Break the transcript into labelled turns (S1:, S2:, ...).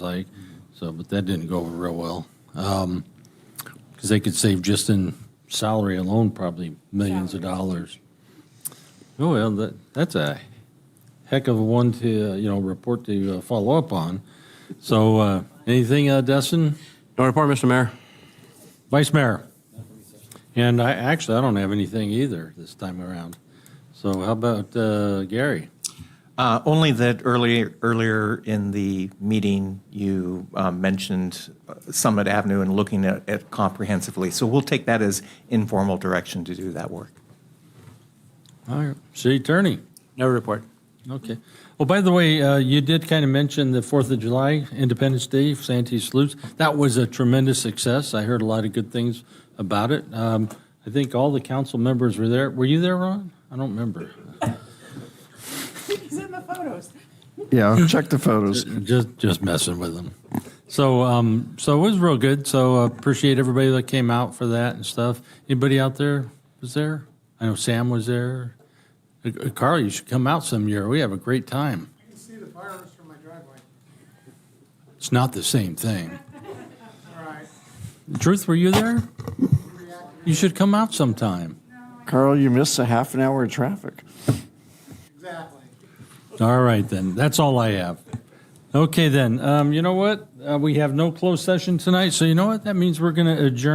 S1: like, so, but that didn't go over real well. Because they could save just in salary alone probably millions of dollars. Oh, well, that, that's a heck of a one to, uh, you know, report to uh, follow up on. So, uh, anything, uh, Dustin?
S2: No report, Mr. Mayor.
S1: Vice Mayor? And I, actually, I don't have anything either this time around. So how about uh, Gary?
S3: Uh, Only that earlier, earlier in the meeting, you um, mentioned Summit Avenue and looking at it comprehensively. So we'll take that as informal direction to do that work.
S1: All right, City Attorney?
S2: No report.
S1: Okay. Well, by the way, uh, you did kind of mention the Fourth of July, Independence Day, Santee salutes. That was a tremendous success. I heard a lot of good things about it. Um, I think all the council members were there. Were you there, Ron? I don't remember.
S4: He's in the photos.
S5: Yeah, check the photos.
S1: Just just messing with them. So um, so it was real good. So uh, appreciate everybody that came out for that and stuff. Anybody out there was there? I know Sam was there. Uh, Carl, you should come out some year. We have a great time.
S6: I can see the fireworks from my driveway.
S1: It's not the same thing.
S6: All right.
S1: Truth, were you there? You should come out sometime.
S5: Carl, you missed a half an hour of traffic.
S6: Exactly.
S1: All right, then. That's all I have. Okay, then. Um, you know what? Uh, we have no closed session tonight, so you know what? That means we're going to adjourn.